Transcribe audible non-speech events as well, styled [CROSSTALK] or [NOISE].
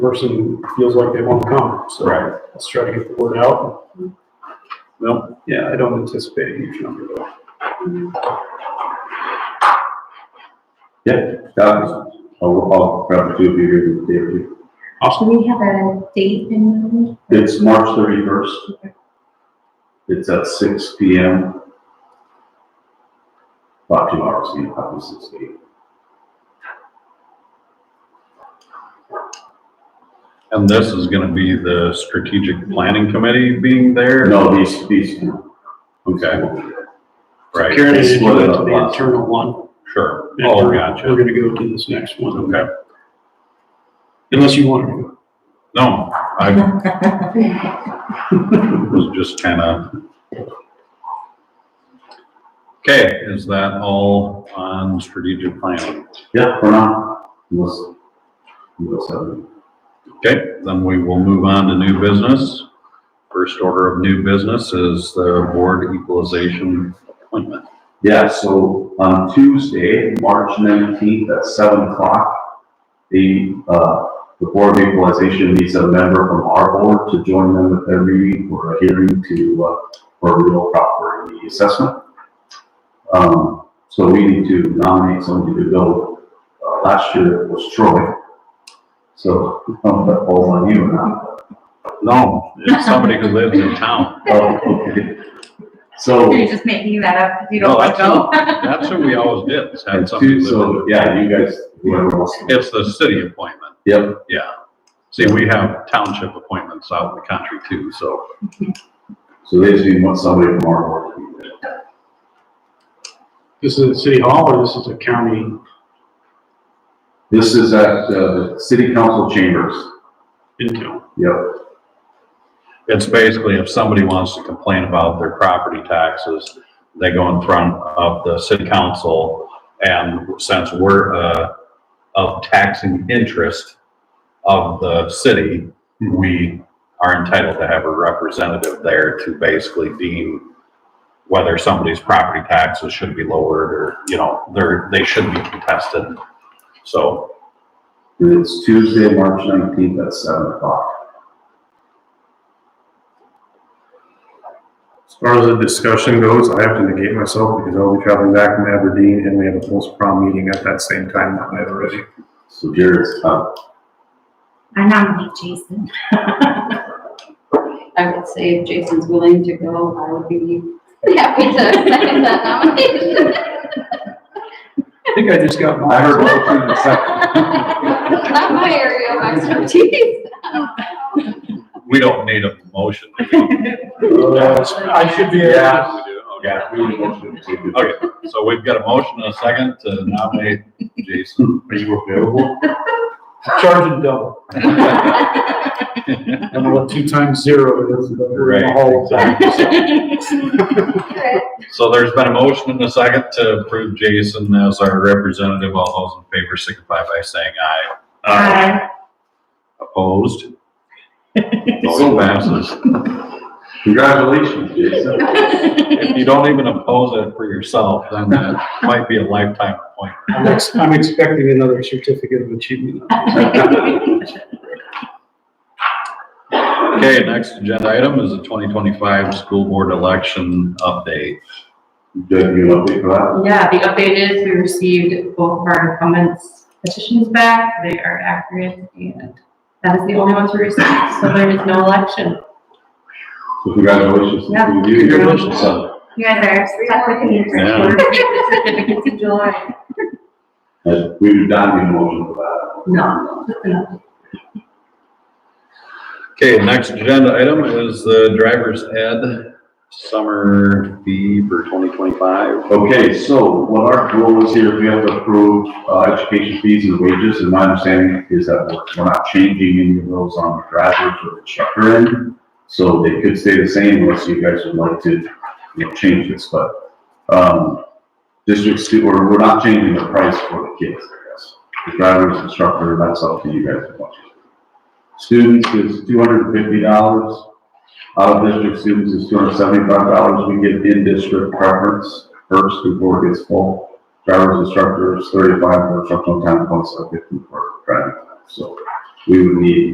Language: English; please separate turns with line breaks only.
person feels like they want to come, so.
Right.
Let's try to get the word out. No, yeah, I don't anticipate a huge number though.
Yeah, that's, I'll, I'll grab two of you here with David.
Do we have a date in mind?
It's March thirty-first. It's at six P M. About two hours, you know, probably six to eight.
And this is gonna be the strategic planning committee being there?
No, these, these.
Okay, right,
Karen, did you
Split it
went to
up
the
last
internal one?
sure.
and
Oh,
we're- We're
gotcha.
gonna go to this next one.
Okay.
Unless you want to.
No, I was just kinda. Okay, is that all on strategic planning?
Yeah, for now, unless, unless, uh,
Okay, then we will move on to new business. First order of new business is the board equalization appointment.
yeah, so on Tuesday, March nineteenth at seven o'clock, the, uh, the Board of Equalization needs a member from our board to join them at their meeting for a hearing to, uh, for real property assessment. Um, so we need to nominate somebody to go. Uh, last year it was Troy. So, [LAUGHS] um, that falls on you now.
No, it's somebody who lives in town.
Oh, okay.
[LAUGHS]
So,
You're just making that up because you don't
No,
want
that's
to go.
what- That's what we always did, is have
and
somebody
two,
live in
so, yeah, you guys, whoever wants to.
It's the city appointment,
Yep,
yeah. See, we have township appointments out in the country too, so.
so they just need one- somebody from our board to be there.
This is at City Hall or this is a county?
This is at, uh, the city council chambers.
Intel.
Yep,
It's basically if somebody wants to complain about their property taxes, they go in front of the city council. And since we're, uh, of taxing interest of the city, we are entitled to have a representative there to basically deem whether somebody's property taxes should be lowered or, you know, they're, they should be contested. So,
and it's Tuesday, March nineteenth at seven o'clock.
As far as the discussion goes, I have to negate myself because I'll be traveling back from Aberdeen and we have a post-prom meeting at that same time that night already.
So Jared's up.
[LAUGHS] I nominate Jason.
[LAUGHS] I would say if Jason's willing to go, I would be happy to second that nomination. [LAUGHS]
I think I just got
I
mine.
heard
[LAUGHS]
both of the second.
Not my area of expertise.
[LAUGHS]
we don't need a motion.
Oh, I should be. uh,
Yeah.
We do, okay.
Yeah, we need motion to.
Okay, so we've got a motion and a second to nominate Jason.
[LAUGHS]
[LAUGHS]
Are you available?
Charging double. I'm gonna let two times zero it is. but we're in the hall.
So there's been a motion and a second to approve Jason as our representative. All those in favor signify by saying aye.
Aye.
Opposed?
[LAUGHS]
Motion passes.
Congratulations, Jason.
If you don't even oppose it for yourself, then that might be a lifetime appointment.
I'm ex- I'm expecting another certificate of achievement.
Okay, next agenda item is the twenty twenty-five school board election update.
Good, you know, big for that.
Yeah, the update is we received both of our incumbents petitions back. They are accurate and that is the only ones we received, so there is no election.
So congratulations.
Yeah.
to you.
Congratulations, son.
You guys are stuck with me for
Yeah.
[LAUGHS]
sure.
Certificates of joy.
As we would not be motion for that.
No, no.
Okay, next agenda item is the driver's ed summer fee for twenty twenty-five.
Okay, so what our rule is here, we have to approve, uh, education fees and wages, and my understanding is that we're, we're not changing any of those on the graduates or the checker end. So they could stay the same unless you guys would like to, you know, change this, but, um, district stu, or we're not changing the price for the kids, I guess. The drivers, instructor, that's up to you guys to watch. Students is two hundred and fifty dollars. Out of district students is two hundred seventy-five dollars. We get in-district preference first before it gets full. Driver's instructors, thirty-five for instructional time, plus a fifty for driving. time. So we would need